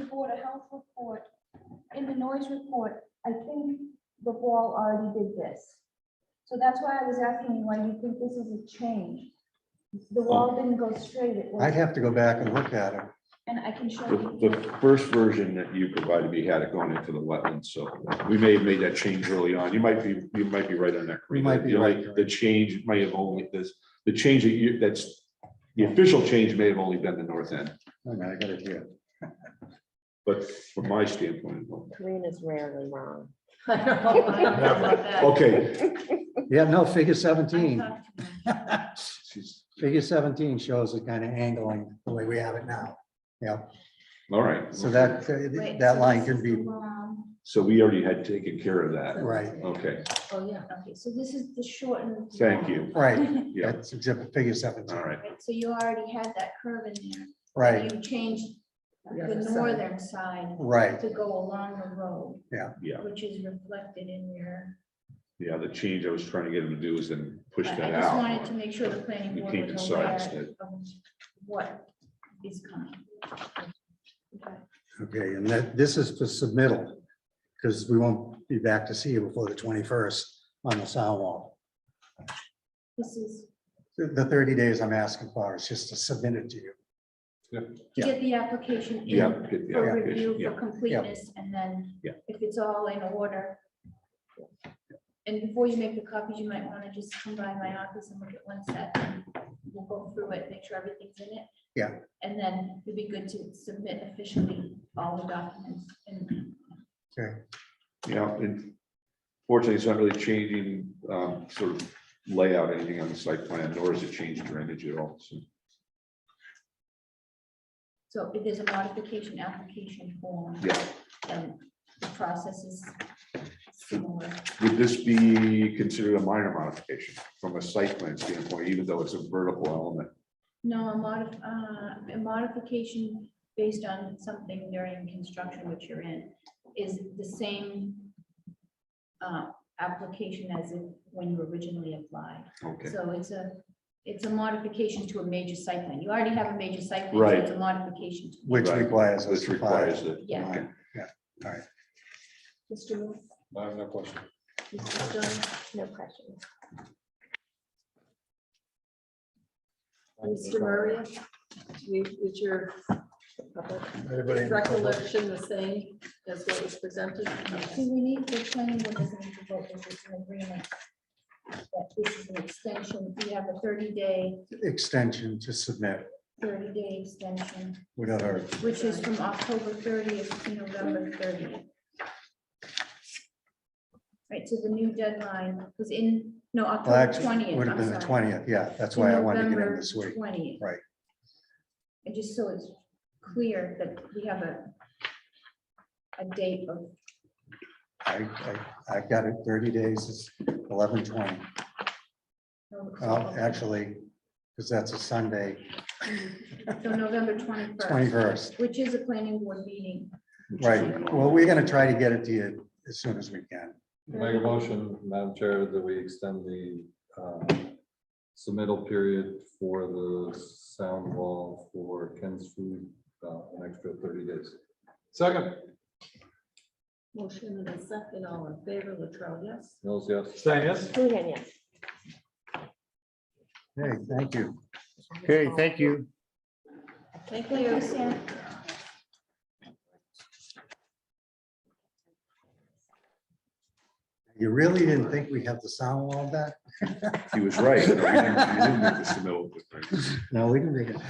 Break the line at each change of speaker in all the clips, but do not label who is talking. Board of Health report, in the noise report, I think the wall already did this. So that's why I was asking you why you think this is a change. The wall didn't go straight, it
I'd
was,
Oh. have to go back and look at it.
and I can show
The,
you.
the first version that you provided me had it going into the wetlands, so we may have made that change early on. You might be, you might be right on that.
We might be
You're
right.
The change might have only, this, the change that you, that's, the official change may have only been the north end,
Oh, no, I got it here.
but from my standpoint. well,
Green is rarely wrong.
I don't know why I thought about that.
Okay.
Yeah, no, figure
I
seventeen.
thought to myself,
She's-
Figure seventeen shows the kind of angling the way we have it now. Yeah,
All right.
so that,
Wait,
that
so
line
this
could
is
be,
the wrong-
So we already had taken care of that.
right,
Okay,
Oh, yeah.
Okay, so this is the shortened.
thank
wall.
you.
right.
Yeah,
That's exhibit figure seventeen,
all right.
Right, So you already had that curve in there.
right,
You changed
The
the
other side.
northern side
right.
to go along the road.
Yeah.
Yeah.
Which is reflected in your.
Yeah, the change I was trying to get him to do is then push
I-
that
I just wanted
out.
to make sure the planning
You
board
can't
was
decide
aware
instead.
of what is coming. Okay.
Okay, and that, this is for submittal, because we won't be back to see you before the twenty-first on the sound wall.
This is
The- The thirty days I'm asking for is just to submit it to you.
to
Yeah.
get the application
Yeah.
in
get the
for
application,
review,
yeah.
for completeness, and then
Yeah.
if it's all in order. And before you make the copies, you might want to just come by my office and look at one set. and We'll go through it, make sure everything's in it.
Yeah.
And then it'd be good to submit officially all the documents and
Yeah, and fortunately, it's not really changing, um, sort of layout, anything on the site plan, nor is it changed drainage at all, so.
so if there's a modification application form.
Yeah.
And the process is similar.
Would this be considered a minor modification from a site plan standpoint, even though it's a vertical element?
No, a modif, uh, a modification based on something during construction which you're in is the same uh, application as if when you originally applied.
Okay,
So it's a, it's a modification to a major site plan. You already have a major site plan. so
Right.
It's a modification. to-
Which
Right,
requires us
this
to file.
requires it.
Yeah.
Okay.
Mr. Moore,
I have no question.
Mrs. Jones, no questions. Mr. Murray, you- is your recollection the same as what was presented?
See, we need, the planning board doesn't need to vote, this is an agreement. That this is an extension. We have a thirty day,
Extension to submit
thirty day extension.
without our,
Which is from October thirtieth to November thirtieth. Right, so the new deadline was in, no,
well,
October
actually,
Oh, twentieth.
would have been the twentieth, yeah, that's why I wanted to get in this week.
Twentieth.
Right.
And just so it's clear that we have a a date of,
I, I, I got it thirty days, it's eleven twenty. Well, actually, because that's a Sunday,
so November twenty-first.
twenty-first,
Which is a planning board meeting.
right. Well, we're gonna try to get it to you as soon as we can.
Make a motion, Madam Chair, that we extend the um, submittal period for the sound wall for Ken's food uh, an extra thirty days. Second.
Motion and a second, all in favor, Latrell, yes?
Mills, yes.
Stein, yes?
Hoogan, yes.
Hey, thank you.
Okay, thank you.
Thank
Thank you,
you.
Sam.
You really didn't think we had the sound wall back?
He was right. No, we didn't- we didn't make this a middle.
No, we can make it.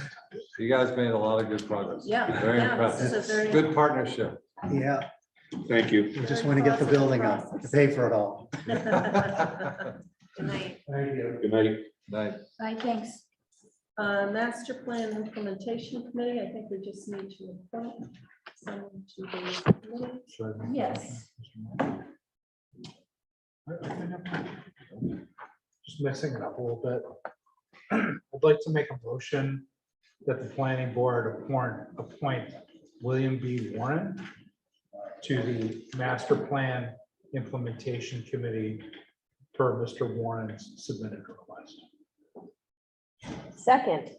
You guys made a lot of good progress.
Yeah,
Very
yeah, this is a
impressive.
very.
Good partnership.
Yeah,
Thank you.
we just want to get the building up to pay for it all.
Night.
Good night.
Thank you.
Good night.
Bye, thanks.
Uh, master plan implementation committee, I think we just need to appoint someone to the committee.
Yes.
Just mixing it up a little bit. I'd like to make a motion that the planning board appoint, appoint William B. Warren to the master plan implementation committee per Mr. Warren's submitted request.
Second.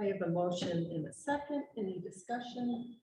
I have a motion in a second. Any discussion?